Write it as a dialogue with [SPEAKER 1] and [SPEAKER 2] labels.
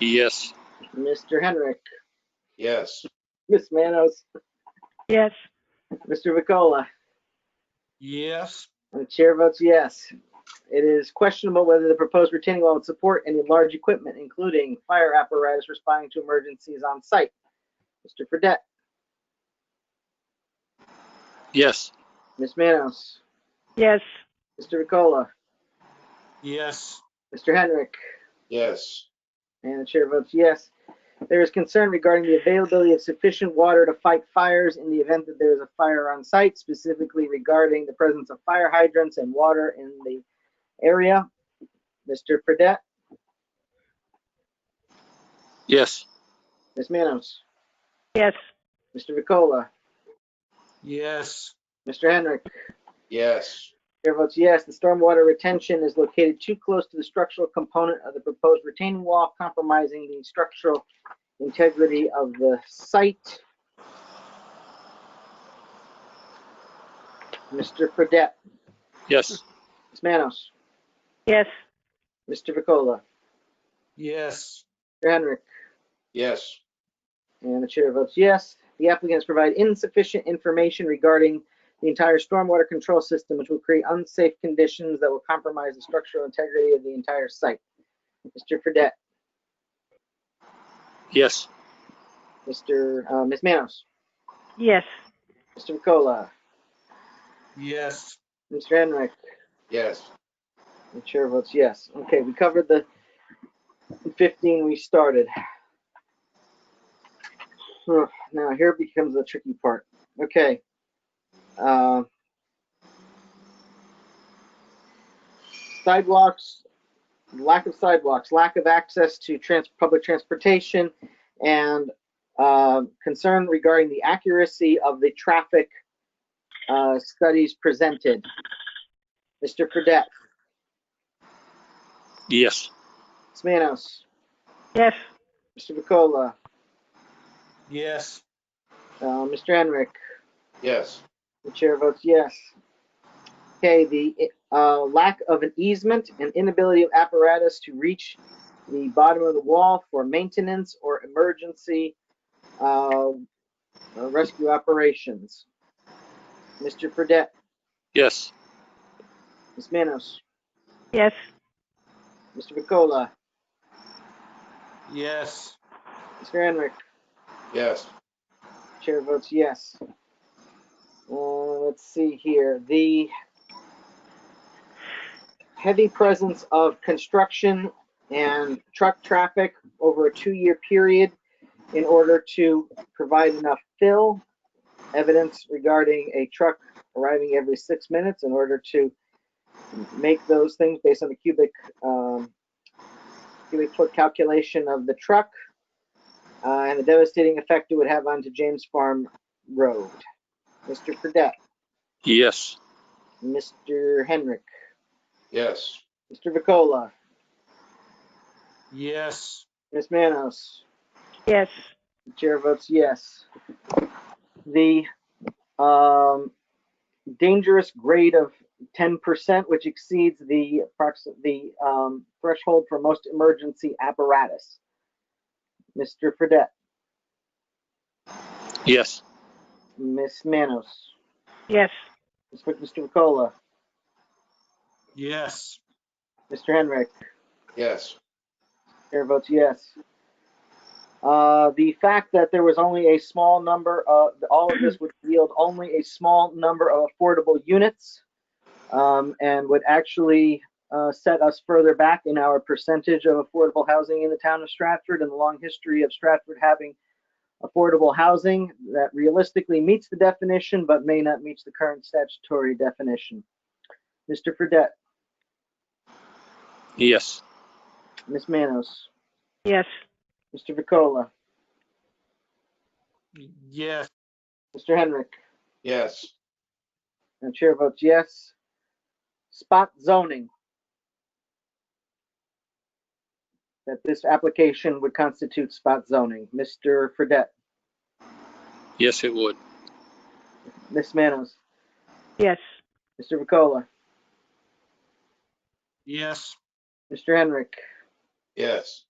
[SPEAKER 1] Yes.
[SPEAKER 2] Mr. Henrik,
[SPEAKER 3] Yes.
[SPEAKER 2] Miss Manos,
[SPEAKER 4] Yes.
[SPEAKER 2] Mr. Vicola,
[SPEAKER 3] Yes.
[SPEAKER 2] and the chair votes yes. It is questionable whether the proposed retaining wall would support any large equipment, including fire apparatus responding to emergencies on site. Mr. Fredette,
[SPEAKER 1] Yes.
[SPEAKER 2] Miss Manos,
[SPEAKER 4] Yes.
[SPEAKER 2] Mr. Vicola,
[SPEAKER 3] Yes.
[SPEAKER 2] Mr. Henrik,
[SPEAKER 3] Yes.
[SPEAKER 2] And the chair votes yes. There is concern regarding the availability of sufficient water to fight fires in the event that there is a fire on site, specifically regarding the presence of fire hydrants and water in the area. Mr. Pradette,
[SPEAKER 1] Yes.
[SPEAKER 2] Ms. Manos,
[SPEAKER 4] Yes.
[SPEAKER 2] Mr. Vicola,
[SPEAKER 3] Yes.
[SPEAKER 2] Mr. Henrik.
[SPEAKER 3] Yes.
[SPEAKER 2] Chair votes yes. The stormwater retention is located too close to the structural component of the proposed retaining wall, compromising the structural integrity of the site. Mr. Fredette,
[SPEAKER 1] Yes.
[SPEAKER 2] Ms. Manos,
[SPEAKER 4] Yes.
[SPEAKER 2] Mr. Vicola,
[SPEAKER 3] Yes.
[SPEAKER 2] Mr. Henrik,
[SPEAKER 3] Yes.
[SPEAKER 2] and the chair votes yes. The applicants provide insufficient information regarding the entire stormwater control system, which will create unsafe conditions that will compromise the structural integrity of the entire site. Mr. Fredette,
[SPEAKER 1] Yes.
[SPEAKER 2] Mr. Uh, Ms. Manos,
[SPEAKER 4] Yes.
[SPEAKER 2] Mr. Vicola,
[SPEAKER 3] Yes.
[SPEAKER 2] Mr. Henrik,
[SPEAKER 3] Yes.
[SPEAKER 2] the chair votes yes. Okay, we covered the 15 we started. Huh, Now here becomes the tricky part. Okay. Um, sidewalks, lack of sidewalks, lack of access to trans, public transportation, and um concern regarding the accuracy of the traffic uh, studies presented. Mr. Fredette.
[SPEAKER 1] Yes.
[SPEAKER 2] Smanos,
[SPEAKER 4] Yes.
[SPEAKER 2] Mr. Vicola,
[SPEAKER 3] Yes.
[SPEAKER 2] uh, Mr. Henrik,
[SPEAKER 3] Yes.
[SPEAKER 2] the chair votes yes. Okay, the uh, lack of an easement and inability of apparatus to reach the bottom of the wall for maintenance or emergency uh, uh, rescue operations. Mr. Fredette,
[SPEAKER 1] Yes.
[SPEAKER 2] Ms. Manos,
[SPEAKER 4] Yes.
[SPEAKER 2] Mr. Vicola,
[SPEAKER 3] Yes.
[SPEAKER 2] Mr. Henrik,
[SPEAKER 3] Yes.
[SPEAKER 2] Chair votes yes. Uh, let's see here, the heavy presence of construction and truck traffic over a two-year period in order to provide enough fill, evidence regarding a truck arriving every six minutes in order to make those things based on the cubic, um, cubic foot calculation of the truck uh, and the devastating effect it would have onto James Farm Road. Mr. Fredette,
[SPEAKER 1] Yes.
[SPEAKER 2] Mr. Henrik,
[SPEAKER 3] Yes.
[SPEAKER 2] Mr. Vicola,
[SPEAKER 3] Yes.
[SPEAKER 2] Ms. Manos,
[SPEAKER 4] Yes.
[SPEAKER 2] the chair votes yes. The um, dangerous grade of 10%, which exceeds the, approx- the um, threshold for most emergency apparatus. Mr. Fredette,
[SPEAKER 1] Yes.
[SPEAKER 2] Ms. Manos,
[SPEAKER 4] Yes.
[SPEAKER 2] Mr. Vicola,
[SPEAKER 3] Yes.
[SPEAKER 2] Mr. Henrik,
[SPEAKER 3] Yes.
[SPEAKER 2] Chair votes yes. Uh, The fact that there was only a small number, of all of this would yield only a small number of affordable units um, and would actually uh, set us further back in our percentage of affordable housing in the town of Stratford and the long history of Stratford having affordable housing that realistically meets the definition but may not meet the current statutory definition. Mr. Fredette,
[SPEAKER 1] Yes.
[SPEAKER 2] Ms. Manos,
[SPEAKER 4] Yes.
[SPEAKER 2] Mr. Vicola,
[SPEAKER 3] Yes.
[SPEAKER 2] Mr. Henrik.
[SPEAKER 3] Yes.
[SPEAKER 2] And the chair votes yes. Spot zoning. That this application would constitute spot zoning. Mr. Fredette,
[SPEAKER 1] Yes, it would.
[SPEAKER 2] Ms. Manos,
[SPEAKER 4] Yes.
[SPEAKER 2] Mr. Vicola,
[SPEAKER 3] Yes.
[SPEAKER 2] Mr. Henrik,
[SPEAKER 3] Yes.